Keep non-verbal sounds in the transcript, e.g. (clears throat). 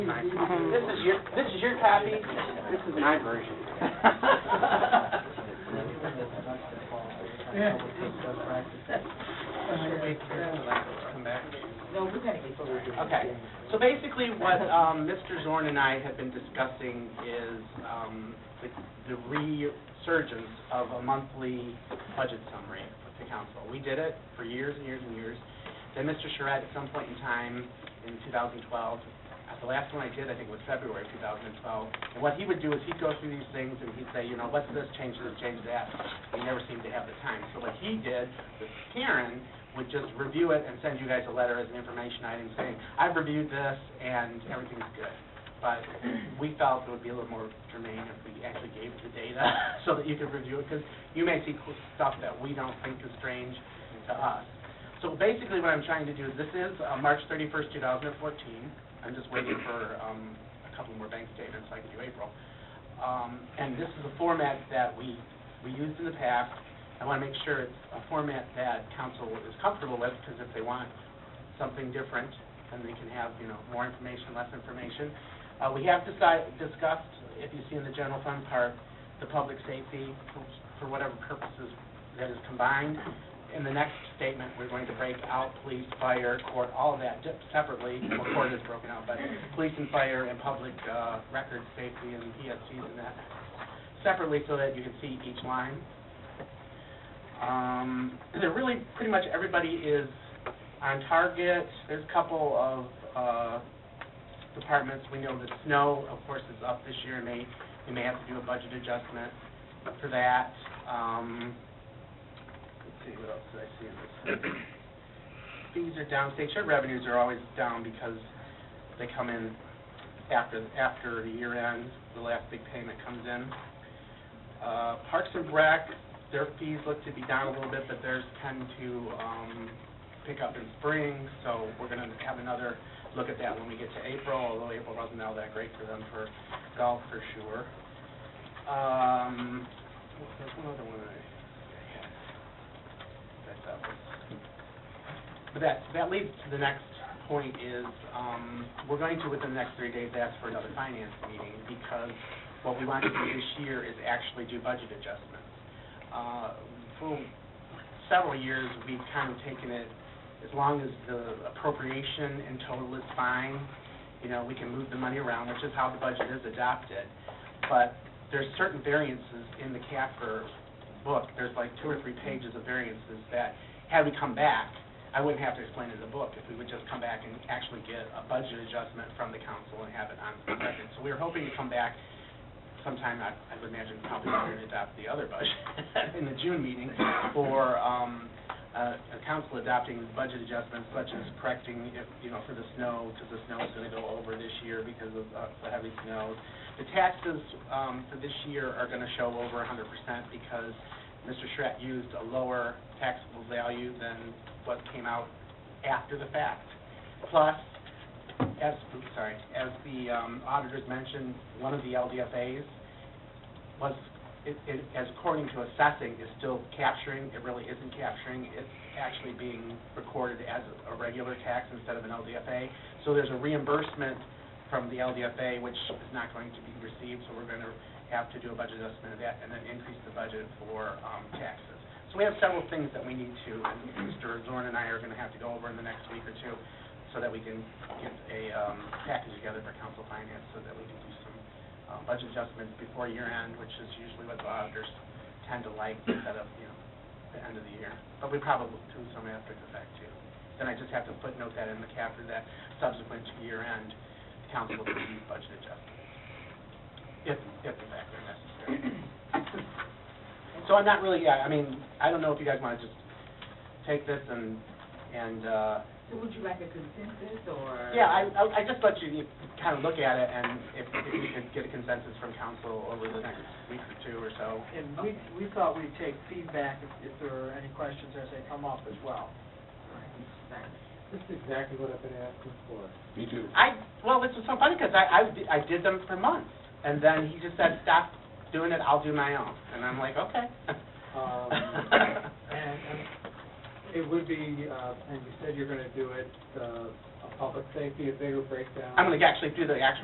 This is your, this is your copy, this is my version. Okay, so basically what, um, Mr. Zorn and I have been discussing is, um, the the resurgence of a monthly budget summary to council. We did it for years and years and years. Then Mr. Charette, at some point in time in 2012, at the last one I did, I think it was February 2012, and what he would do is he'd go through these things and he'd say, you know, what's this, change this, change that. We never seemed to have the time. So what he did with Karen would just review it and send you guys a letter as an information item saying, I've reviewed this and everything's good. But we felt it would be a little more germane if we actually gave the data (laughs) so that you could review it, because you may see cool stuff that we don't think is strange to us. So basically, what I'm trying to do, is this is uh, March 31st, 2014. I'm just waiting for um, a couple more bank statements, so I can do April. Um, And this is a format that we, we used in the past. I want to make sure it's a format that council is comfortable with, because if they want something different, then they can have, you know, more information, less information. Uh, We have decide- discussed, if you see in the general fund part, the public safety, for- for whatever purposes that is combined. In the next statement, we're going to break out police, fire, court, all of that di- separately. Well, court is broken out, but police and fire and public uh, record safety and PSCs and that separately so that you can see each line. Um, (clears throat) They're really, pretty much everybody is on target. There's a couple of uh, departments, we know that snow, of course, is up this year, and they, they may have to do a budget adjustment for that. Um, Let's see, what else did I see in this? Fees are down, state share revenues are always down because they come in after, after the year end, the last big payment comes in. Uh, Parks and Rec, their fees look to be down a little bit, but theirs tend to, um, pick up in spring, so we're gonna have another look at that when we get to April, although April wasn't all that great for them for golf for sure. Um, what- there's one other one that I that that was. But that, that leads to the next point is, um, we're going to, within the next three days, ask for another finance meeting because what we want to do this year is actually do budget adjustments. Uh, for several years, we've kind of taken it as long as the appropriation in total is fine, you know, we can move the money around, which is how the budget is adopted. But there's certain variances in the CAFR book, there's like two or three pages of variances that, had we come back, I wouldn't have to explain in the book, if we would just come back and actually get a budget adjustment from the council and have it on the record. So we were hoping to come back sometime, I I would imagine probably we're going to adopt the other budget (laughs) in the June meeting for um, uh, a council adopting budget adjustments such as correcting, if, you know, for the snow, because the snow is going to go over this year because of uh, the heavy snows. The taxes um, for this year are going to show over 100% because Mr. Schreck used a lower taxable value than what came out after the fact. Plus, as, oops, sorry, as the um, auditors mentioned, one of the LDFAs was, it- it- as according to assessing, is still capturing, it really isn't capturing, it's actually being recorded as a regular tax instead of an LDFA. So there's a reimbursement from the LDFA, which is not going to be received, so we're going to have to do a budget adjustment of that and then increase the budget for um, taxes. So we have several things that we need to, and Mr. Zorn and I are going to have to go over in the next week or two, so that we can get a um, package together for council finance, so that we can do some uh, budget adjustments before year end, which is usually what the auditors tend to like instead of, you know, the end of the year. But we probably do some after the fact too. Then I just have to footnote that in the cap for that subsequent to year end, the council will do these budget adjustments, if, if in fact they're necessary. So I'm not really, yeah, I mean, I don't know if you guys want to just take this and, and, uh, So would you like a consensus or? yeah, I, I- I just let you kind of look at it, and if if you could get a consensus from council over the next week or two or so. And we, we thought we'd take feedback if, if there are any questions as they come up as well. This is exactly what I've been asking for. Me too. I, well, this was so funny, because I, I di- I did them for months, and then he just said, stop doing it, I'll do my own, and I'm like, okay. (laughs) Um, And and it would be, uh, and you said you're going to do it uh, public safety, a bigger breakdown. I'm gonna actually do the actual